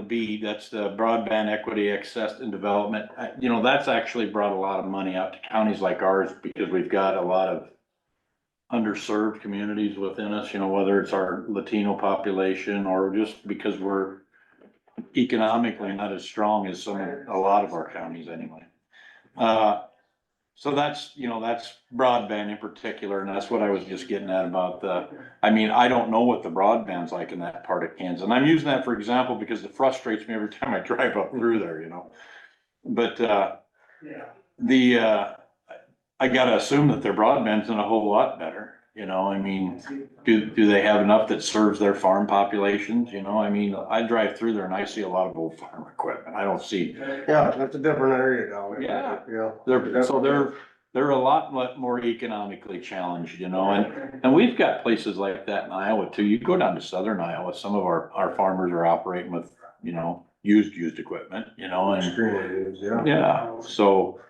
B, that's the broadband equity access and development. Uh, You know, that's actually brought a lot of money out to counties like ours because we've got a lot of underserved communities within us, you know, whether it's our Latino population or just because we're economically not as strong as some, a lot of our counties anyway. Uh, so that's, you know, that's broadband in particular, and that's what I was just getting at about the, I mean, I don't know what the broadband's like in that part of Kansas, and I'm using that for example because it frustrates me every time I drive up through there, you know? But, uh, the, uh, I gotta assume that their broadband's in a whole lot better, you know, I mean, do, do they have enough that serves their farm populations, you know, I mean, I drive through there and I see a lot of old farm equipment, I don't see. Yeah, that's a different area down there. Yeah. Yeah. They're, so they're, they're a lot mo- more economically challenged, you know, and, and we've got places like that in Iowa too, you go down to southern Iowa, some of our, our farmers are operating with, you know, used, used equipment, you know, and. Extremely used, yeah. Yeah, so,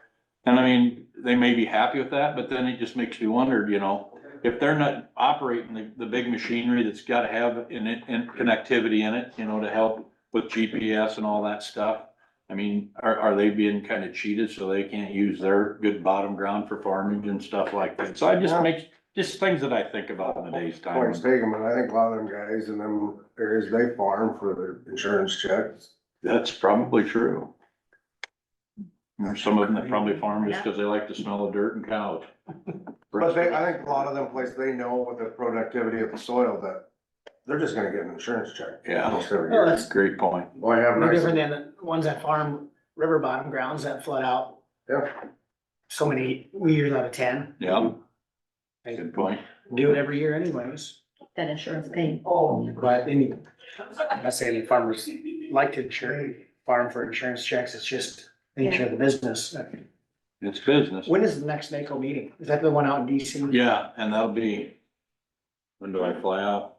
and I mean, they may be happy with that, but then it just makes me wonder, you know, if they're not operating the, the big machinery that's gotta have in it, in connectivity in it, you know, to help with GPS and all that stuff. I mean, are, are they being kind of cheated so they can't use their good bottom ground for farming and stuff like that? So I just make, just things that I think about in the day's time. Points taken, but I think a lot of them guys in them areas, they farm for their insurance checks. That's probably true. There's some of them that probably farm just because they like the smell of dirt and cows. But they, I think a lot of them places, they know with the productivity of the soil that they're just gonna get an insurance check. Yeah. Almost every Well, year. that's Great point. Boy, have No nice, different than the ones that farm river bottom grounds that flood out yeah, so many years out of ten. Yeah, They good point. do it every year anyways. that insurance paid. But any, I'm not saying farmers like to insure, farm for insurance checks, it's just nature of the business. It's business. When is the next NACO meeting? Is that the one out in DC? Yeah, and that'll be, when do I fly out?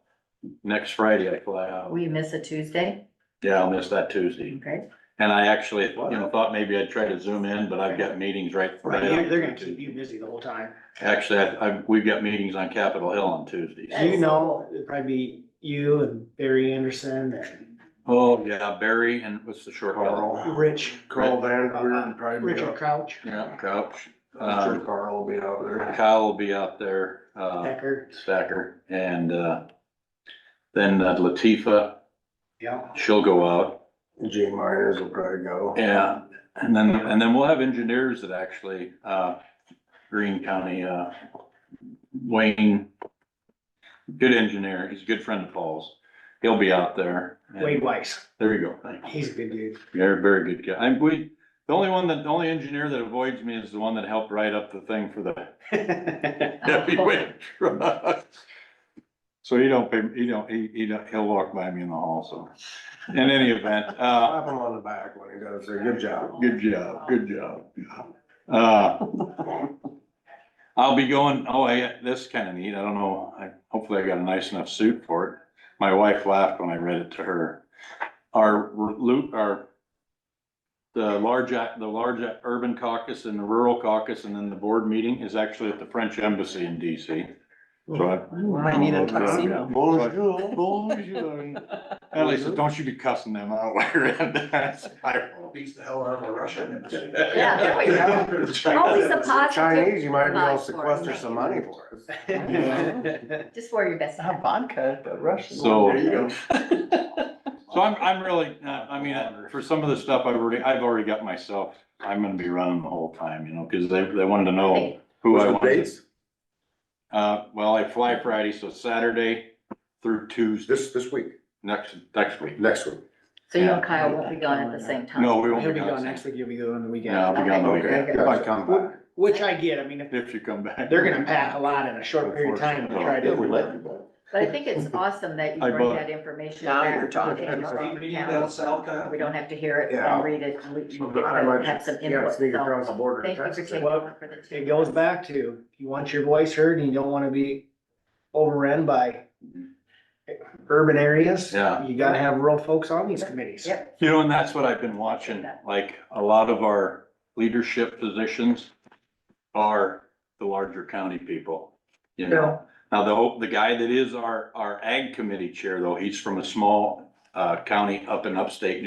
Next Friday I fly out. We miss a Tuesday, Yeah, I'll miss that Tuesday. okay? And I actually, you know, thought maybe I'd try to zoom in, but I've got meetings right. Right, they're, they're gonna keep you busy the whole time. Actually, I, I, we've got meetings on Capitol Hill on Tuesdays. Do you know, it'd probably be you and Barry Anderson and Oh, yeah, Barry and what's the short fellow? Carl, Rich, Carl Van, we're probably be Richard out. Crouch, Yeah, Couch. I'm Um, sure Carl will be out there. Kyle will be out there, uh, Becker, Stacker, and, uh, then uh, Latifa, yeah. she'll go out. Gene Myers will probably go. Yeah, and then, and then we'll have engineers that actually, uh, Green County, uh, Wayne, good engineer, he's a good friend of Paul's. He'll be out there. and- Wade Weiss, There you go, thanks. he's a good dude. Very, very good guy. I'm, we, the only one that, the only engineer that avoids me is the one that helped write up the thing for the heavyweight truck. So he don't pay, he don't, he, he don't, he'll walk by me in the hall, so. In any event, uh, Clap him on the back when he does, say, good job. Good job, good job. Uh, I'll be going, oh, I, this is kinda neat, I don't know, I, hopefully I got a nice enough suit for it. My wife laughed when I read it to her. Our loot, our, the large, ac- the large urban caucus and the rural caucus and then the board meeting is actually at the French embassy in DC. So I- Might need Oh, a tuxedo. Bonjour, Bonjour. Ellie says, don't you be cussing them out wearing that. Beats the hell out of a Russian. Yeah, there we go. Always the positive Chinese, you might be able to vibes for it, sequester thank some you. money for us. Just wear your best hat. Vodka, but Russian. So- There you go. Oh. So I'm, I'm really, uh, I mean, uh, for some of the stuff I've already, I've already got myself, I'm gonna be running the whole time, you know, cause they, they wanted to know who uh, I wanted. Uh, well, I fly Friday, so Saturday through Tuesday, This, this week, next, next week. next week. So you and Kyle won't be gone at the same time. No, we won't He'll be be gone gone. next week, you'll be going on the weekend. Yeah, I'll be gone the Okay. weekend, if I come back, Which I get, I mean, if if you come back. they're gonna pack a lot in a short period of time Oh, to try Yeah, we to. let you go. But I think it's awesome that you I bring bought- that information Now back. you're talking. and you're on the calendar. We don't have to hear it Yeah. and read it. and we- But I might- we Have some You gotta input. sneak so across the border to Thank you for Texas. taking on for the It goes back to, you want your voice heard and you don't wanna be overrun by urban areas. Mm-hmm. Yeah. You gotta have rural folks on these committees. Yep. You know, and that's what I've been watching, like, a lot of our leadership positions are the larger county people, you know? Now, the, whole- the guy that is our, our ag committee chair, though, he's from a small, uh, county up in upstate